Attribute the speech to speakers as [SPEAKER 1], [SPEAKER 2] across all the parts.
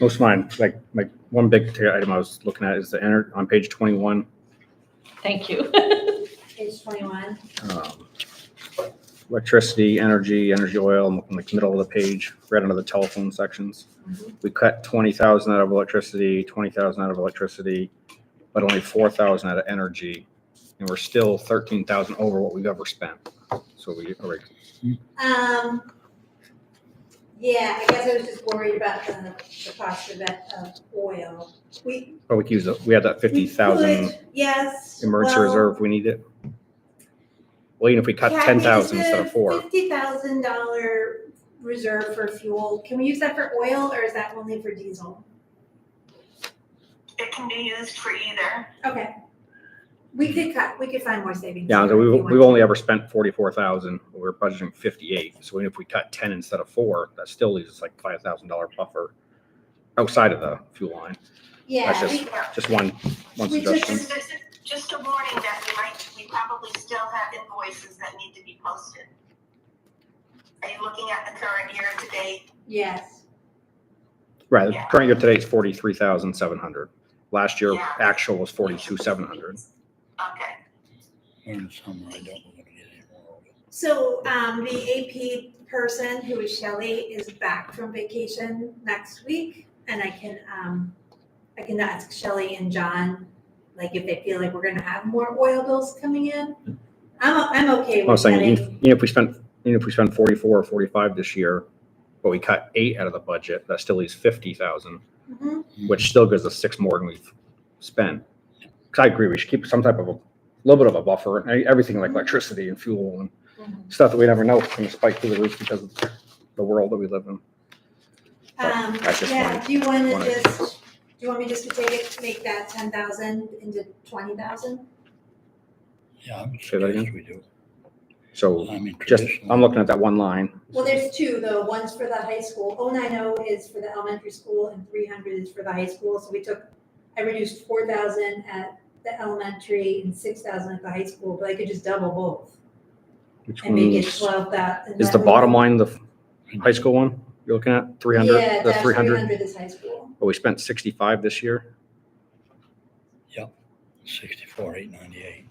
[SPEAKER 1] Most of mine, like, like one big ticket item I was looking at is the enter, on page twenty-one.
[SPEAKER 2] Thank you.
[SPEAKER 3] Page twenty-one.
[SPEAKER 1] um, Electricity, energy, energy oil, I'm looking like middle of the page, right under the telephone sections. We cut twenty thousand out of electricity, twenty thousand out of electricity, but only four thousand out of energy. And we're still thirteen thousand over what we've ever spent. So we, are we-
[SPEAKER 3] Um, yeah, I guess I was just worried about the, the cost of that, of oil. We.
[SPEAKER 1] but we could use, it. we had that fifty
[SPEAKER 3] we
[SPEAKER 1] thousand
[SPEAKER 3] could, Yes.
[SPEAKER 1] emergency
[SPEAKER 3] well,
[SPEAKER 1] reserve, if we need it. Well, even if we cut
[SPEAKER 3] yeah, I
[SPEAKER 1] ten
[SPEAKER 3] mean,
[SPEAKER 1] thousand
[SPEAKER 3] it's
[SPEAKER 1] instead
[SPEAKER 3] a
[SPEAKER 1] of four,
[SPEAKER 3] Fifty thousand dollar reserve for fuel. Can we use that for oil or is that only for diesel?
[SPEAKER 4] It can be used for either.
[SPEAKER 3] Okay. We could cut, we could find more savings.
[SPEAKER 1] yeah, so
[SPEAKER 3] here
[SPEAKER 1] we,
[SPEAKER 3] if you want
[SPEAKER 1] we've
[SPEAKER 3] to.
[SPEAKER 1] only ever spent forty-four thousand, we're budgeting fifty-eight, so even if we cut ten instead of four, that still leaves us like five thousand dollar buffer outside of the fuel line,
[SPEAKER 3] Yeah,
[SPEAKER 1] that's
[SPEAKER 3] we,
[SPEAKER 1] just one, one
[SPEAKER 3] We
[SPEAKER 1] suggestion.
[SPEAKER 3] just-
[SPEAKER 4] Just, just- just a warning that we might, we probably still have invoices that need to be posted. Are you looking at the current year to date?
[SPEAKER 3] yes,
[SPEAKER 1] Right, the
[SPEAKER 4] Yeah.
[SPEAKER 1] current year today is forty-three thousand seven hundred. Last year,
[SPEAKER 4] Yeah.
[SPEAKER 1] actual was forty-two seven hundred.
[SPEAKER 4] Okay,
[SPEAKER 5] In summer, I don't want to get any more of it.
[SPEAKER 3] so, um, the AP person, who is Shelley, is back from vacation next week, and I can, um, I can ask Shelley and John, like, if they feel like we're gonna have more oil bills coming in. I'm, I'm okay
[SPEAKER 1] I was
[SPEAKER 3] with
[SPEAKER 1] saying,
[SPEAKER 3] cutting.
[SPEAKER 1] even even if we spent, even if we spend forty-four or forty-five this year, but we cut eight out of the budget, that still leaves fifty thousand,
[SPEAKER 3] Mhm.
[SPEAKER 1] which still gives us six more than we've spent. 'Cause I agree, we should keep some type of a, little bit of a buffer, and e-, everything like electricity and fuel
[SPEAKER 3] Mm-hmm.
[SPEAKER 1] and stuff that we never know is gonna spike through the roof because of the world that we live in.
[SPEAKER 3] Um,
[SPEAKER 1] Oh, I just
[SPEAKER 3] yeah,
[SPEAKER 1] wanted-
[SPEAKER 3] do you wanna
[SPEAKER 1] wanted-
[SPEAKER 3] just, do you want me just to take it, make that ten thousand into twenty thousand?
[SPEAKER 5] Yeah, I would
[SPEAKER 1] Say that again?
[SPEAKER 5] suggest we do.
[SPEAKER 1] So
[SPEAKER 5] I mean,
[SPEAKER 1] just,
[SPEAKER 5] traditionally-
[SPEAKER 1] I'm looking at that one line.
[SPEAKER 3] Well, there's two though, one's for the high school, oh nine oh is for the elementary school and three hundred is for the high school, so we took, I reduced four thousand at the elementary and six thousand at the high school, but I could just double both
[SPEAKER 1] Which
[SPEAKER 3] and make it
[SPEAKER 1] one's-
[SPEAKER 3] twelve that. and
[SPEAKER 1] Is
[SPEAKER 3] that
[SPEAKER 1] the
[SPEAKER 3] would-
[SPEAKER 1] bottom line the high school one you're looking at? Three
[SPEAKER 3] Yeah,
[SPEAKER 1] hundred, the
[SPEAKER 3] that's
[SPEAKER 1] three
[SPEAKER 3] three
[SPEAKER 1] hundred,
[SPEAKER 3] hundred is high school.
[SPEAKER 1] but we spent sixty-five this year.
[SPEAKER 5] Sixty-four, eight ninety-eight.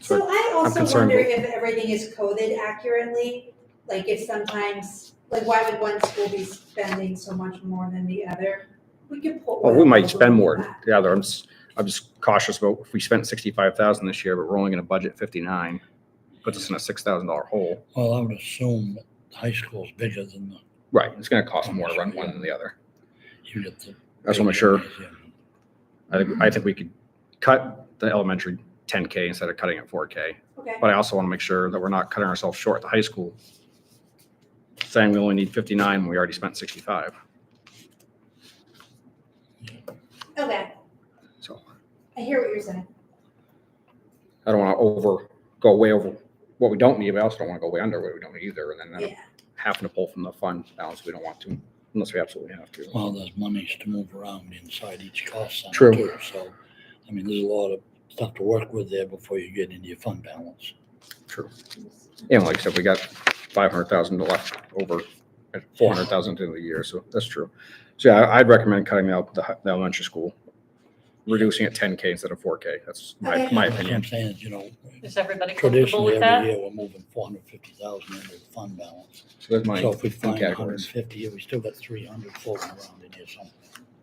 [SPEAKER 1] So
[SPEAKER 3] So I also
[SPEAKER 1] concerned
[SPEAKER 3] wonder if everything is coded accurately, like if sometimes, like why would one school be spending so much more than the other? We could pull.
[SPEAKER 1] Well, we
[SPEAKER 3] one
[SPEAKER 1] might
[SPEAKER 3] over
[SPEAKER 1] spend more
[SPEAKER 3] that.
[SPEAKER 1] than the other. I'm just, I'm just cautious about if we spent sixty-five thousand this year, but we're only gonna budget fifty-nine. Puts us in a six thousand dollar hole.
[SPEAKER 5] Well, I would assume that the high school's bigger than the,
[SPEAKER 1] Right, it's gonna cost more to run one than the other.
[SPEAKER 5] you get the.
[SPEAKER 1] I just wanna make sure.
[SPEAKER 5] gymnasium.
[SPEAKER 1] I think, I think we could cut the elementary ten K instead of cutting it four K.
[SPEAKER 3] Okay,
[SPEAKER 1] But I also wanna make sure that we're not cutting ourselves short at the high school. Saying we only need fifty-nine when we already spent sixty-five.
[SPEAKER 3] okay,
[SPEAKER 1] So
[SPEAKER 3] I hear what you're saying.
[SPEAKER 1] I don't want to over, go way over what we don't need, but I also don't want to go way under what we don't need either, and then end up
[SPEAKER 3] Yeah,
[SPEAKER 1] having to pull from the fund balance we don't want to, unless we absolutely have to.
[SPEAKER 5] Well, there's monies to move around inside each cost center
[SPEAKER 1] True.
[SPEAKER 5] too, so, I mean, there's a lot of stuff to work with there before you get into your fund balance.
[SPEAKER 1] True. And like I said, we got five hundred thousand left over, four hundred thousand into the year, so that's true. So yeah, I- I'd recommend cutting out the hi- the elementary school, reducing it ten K instead of four K. That's my,
[SPEAKER 3] Okay.
[SPEAKER 1] my
[SPEAKER 5] That's what
[SPEAKER 1] opinion.
[SPEAKER 5] I'm saying, is, you know,
[SPEAKER 2] Is everybody comfortable
[SPEAKER 5] traditionally,
[SPEAKER 2] with
[SPEAKER 5] every
[SPEAKER 2] that?
[SPEAKER 5] year, we're moving four hundred fifty thousand into the fund balance.
[SPEAKER 1] So that's my
[SPEAKER 5] So if we
[SPEAKER 1] two
[SPEAKER 5] find hundred and
[SPEAKER 1] categories.
[SPEAKER 5] fifty, we still got three hundred floating around in here somewhere.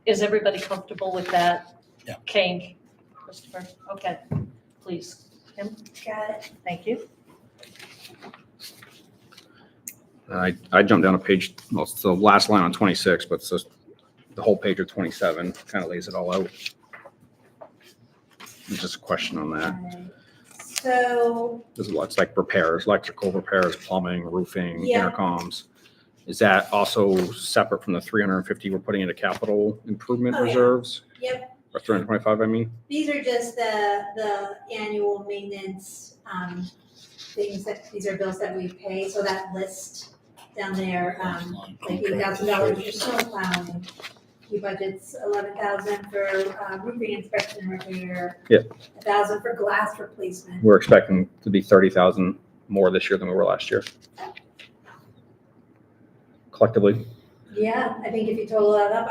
[SPEAKER 2] Is everybody comfortable with that?
[SPEAKER 5] Yeah.
[SPEAKER 2] Change, Christopher, okay, please,
[SPEAKER 3] got it.
[SPEAKER 2] thank you.
[SPEAKER 1] I, I jumped down a page, well, it's the last line on twenty-six, but it's just the whole page of twenty-seven, kind of lays it all out. It's Just a question on that.
[SPEAKER 3] Alright. So,
[SPEAKER 1] There's a lot, it's like repairs, electrical repairs, plumbing, roofing,
[SPEAKER 3] Yeah.
[SPEAKER 1] intercoms. Is that also separate from the three hundred and fifty we're putting into capital improvement
[SPEAKER 3] Oh, yeah.
[SPEAKER 1] reserves?
[SPEAKER 3] Yep.
[SPEAKER 1] Or three hundred and twenty-five, I mean?
[SPEAKER 3] these are just the, the annual maintenance, um, things that, these are bills that we pay, so that list down there, um, like eight thousand dollars for snow plowing. He budgets eleven thousand for uh, roofing inspection and repair.
[SPEAKER 1] Yeah.
[SPEAKER 3] A thousand for glass replacement.
[SPEAKER 1] We're expecting to be thirty thousand more this year than we were last year. Collectively.
[SPEAKER 3] Yeah, I think if you total that up,